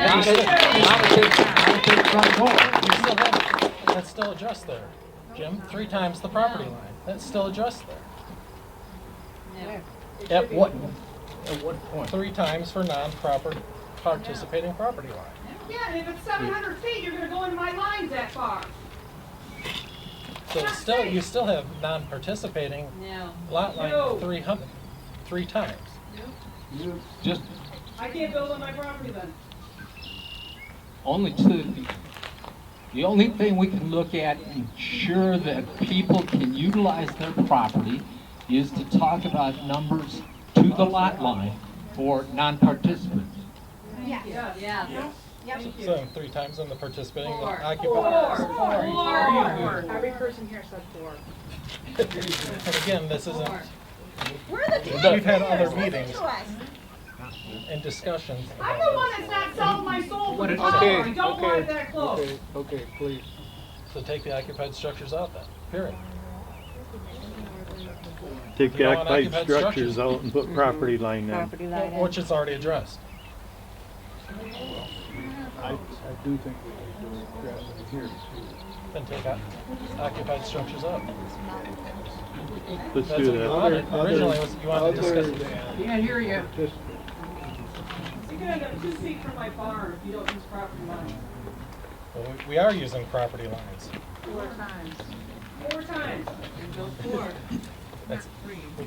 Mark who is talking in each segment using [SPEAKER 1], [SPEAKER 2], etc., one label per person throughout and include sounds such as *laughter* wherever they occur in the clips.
[SPEAKER 1] Not with, not with this, not with this front door.
[SPEAKER 2] You still have, that's still addressed there, Jim, three times the property line, that's still addressed there. At what,
[SPEAKER 1] At what point?
[SPEAKER 2] three times for non-proper participating property line.
[SPEAKER 3] Yeah, and if it's seven hundred feet, you're gonna go in my lines that far.
[SPEAKER 2] So it's still, you still have non-participating
[SPEAKER 4] No.
[SPEAKER 2] lot
[SPEAKER 3] No.
[SPEAKER 2] line three hundred, three times.
[SPEAKER 1] You just,
[SPEAKER 3] I can't build on my property then.
[SPEAKER 1] only to, the only thing we can look at and ensure that people can utilize their property is to talk about numbers to the lot line for non-participants.
[SPEAKER 3] Yes.
[SPEAKER 4] Yeah.
[SPEAKER 2] So three times on the participating the
[SPEAKER 4] Four.
[SPEAKER 3] Four,
[SPEAKER 2] occupant.
[SPEAKER 3] four, four.
[SPEAKER 5] Every person here said four.
[SPEAKER 2] *laughs* And again, this isn't,
[SPEAKER 4] Four.
[SPEAKER 6] We're the taxpayers.
[SPEAKER 2] We've had other
[SPEAKER 6] Listen
[SPEAKER 2] meetings.
[SPEAKER 6] to us.
[SPEAKER 2] in discussions
[SPEAKER 3] I'm the
[SPEAKER 2] about
[SPEAKER 3] one that's not selling my soul for
[SPEAKER 7] What
[SPEAKER 3] the
[SPEAKER 7] is-
[SPEAKER 3] power,
[SPEAKER 7] okay,
[SPEAKER 3] I don't want it that close.
[SPEAKER 7] Okay, okay, please.
[SPEAKER 2] this. So take the occupied structures out then, period.
[SPEAKER 8] Take
[SPEAKER 2] You
[SPEAKER 8] the
[SPEAKER 2] know, and
[SPEAKER 8] occupied
[SPEAKER 2] occupied structures.
[SPEAKER 8] structures out and put property line in.
[SPEAKER 2] Which is already addressed.
[SPEAKER 7] I, I do think we need to address it here.
[SPEAKER 2] Then take out occupied structures out. That's
[SPEAKER 8] Let's do
[SPEAKER 2] what you
[SPEAKER 8] that.
[SPEAKER 2] wanted. Originally, was you wanted to discuss it.
[SPEAKER 7] Can't hear you. Just,
[SPEAKER 3] You're gonna end up two feet from my barn if you don't use property lines.
[SPEAKER 2] Well, we- we are using property lines.
[SPEAKER 3] Four times.
[SPEAKER 2] That's,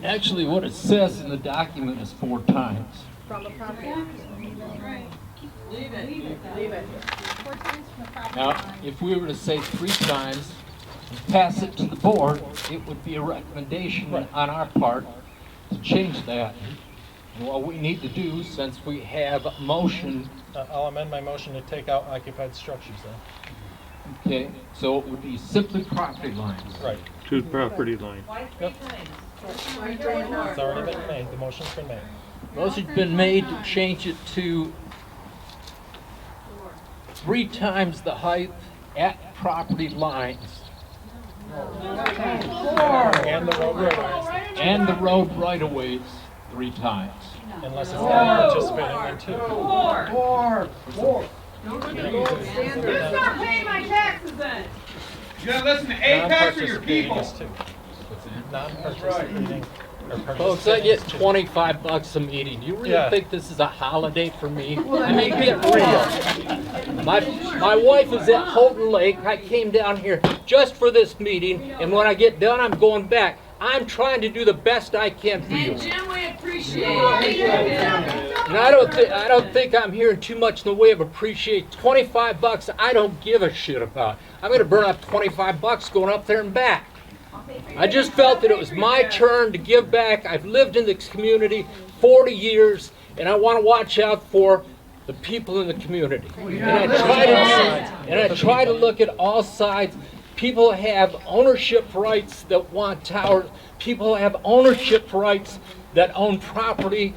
[SPEAKER 1] Actually, what it says in the document is four times.
[SPEAKER 5] From the property.
[SPEAKER 4] Leave it. Leave it.
[SPEAKER 5] Leave it.
[SPEAKER 6] We're times from the property
[SPEAKER 1] Now,
[SPEAKER 6] line.
[SPEAKER 1] if we were to say three times, and pass it to the board, it would be a recommendation
[SPEAKER 2] Right.
[SPEAKER 1] on our part to change that. And what we need to do, since we have a motion,
[SPEAKER 2] uh, I'll amend my motion to take out occupied structures then.
[SPEAKER 1] okay, so it would be simply property lines.
[SPEAKER 2] Right,
[SPEAKER 8] Two property line.
[SPEAKER 4] Why three times?
[SPEAKER 2] it's already been made, the motion's been made.
[SPEAKER 1] Motion's been made to change it to three times the height at property lines
[SPEAKER 2] And the road roadways,
[SPEAKER 1] and the road right-of-ways three times.
[SPEAKER 2] unless it's not participating there too.
[SPEAKER 3] Four. You
[SPEAKER 5] Standard.
[SPEAKER 3] stop paying my taxes then.
[SPEAKER 2] Non-participating is two. Non-participating or
[SPEAKER 9] Folks, I
[SPEAKER 2] participating
[SPEAKER 9] get
[SPEAKER 2] is two.
[SPEAKER 9] twenty-five bucks a meeting. You
[SPEAKER 2] Yeah.
[SPEAKER 9] really think this is a holiday for me? I mean, get real. My, my wife is at Houghton Lake. I came down here just for this meeting, and when I get done, I'm going back. I'm trying to do the best I can for you.
[SPEAKER 4] And Jim, we appreciate it.
[SPEAKER 9] And I don't thi- I don't think I'm hearing too much in the way of appreciate. Twenty-five bucks, I don't give a shit about. I'm gonna burn up twenty-five bucks going up there and back. I just felt that it was my turn to give back. I've lived in this community forty years, and I wanna watch out for the people in the community. And I try to, and I try to look at all sides. People have ownership rights that want towers. People have ownership rights that own property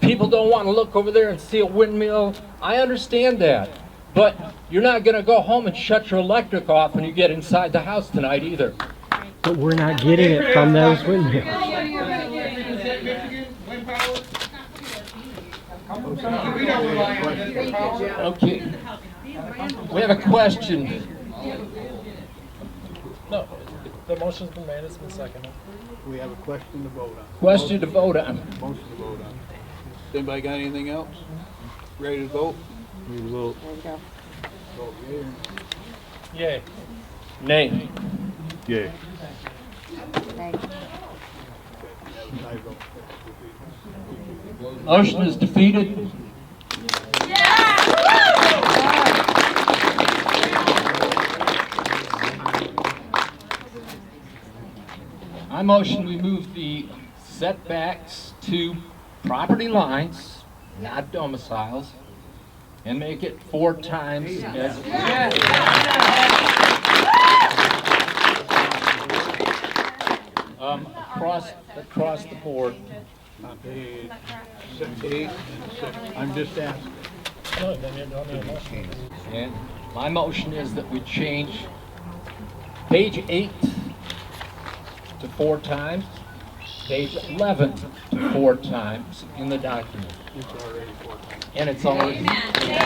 [SPEAKER 9] People don't want to look over there and see a windmill. I understand that. But you're not going to go home and shut your electric off when you get inside the house tonight either.
[SPEAKER 10] But we're not getting it from those windmills.
[SPEAKER 1] Okay. We have a question.
[SPEAKER 2] No, the motion's been made, it's been seconded.
[SPEAKER 7] we have a question to vote on,
[SPEAKER 1] Question to vote on.
[SPEAKER 7] motion to vote on. Anybody got anything else? Ready to vote?
[SPEAKER 8] We will
[SPEAKER 7] Vote yea or nay.
[SPEAKER 1] Nay.
[SPEAKER 2] Yay.
[SPEAKER 8] yay.
[SPEAKER 7] I vote
[SPEAKER 1] Motion is defeated. I motion we move the setbacks to property lines, not domiciles, and make it four times as. Um, across, across the board.
[SPEAKER 7] on page six- eight and six. I'm just asking.
[SPEAKER 2] No, then you don't need a motion.
[SPEAKER 1] And my motion is that we change page eight to four times, page eleven to four times in the document.
[SPEAKER 7] It's already four times.
[SPEAKER 1] And it's already.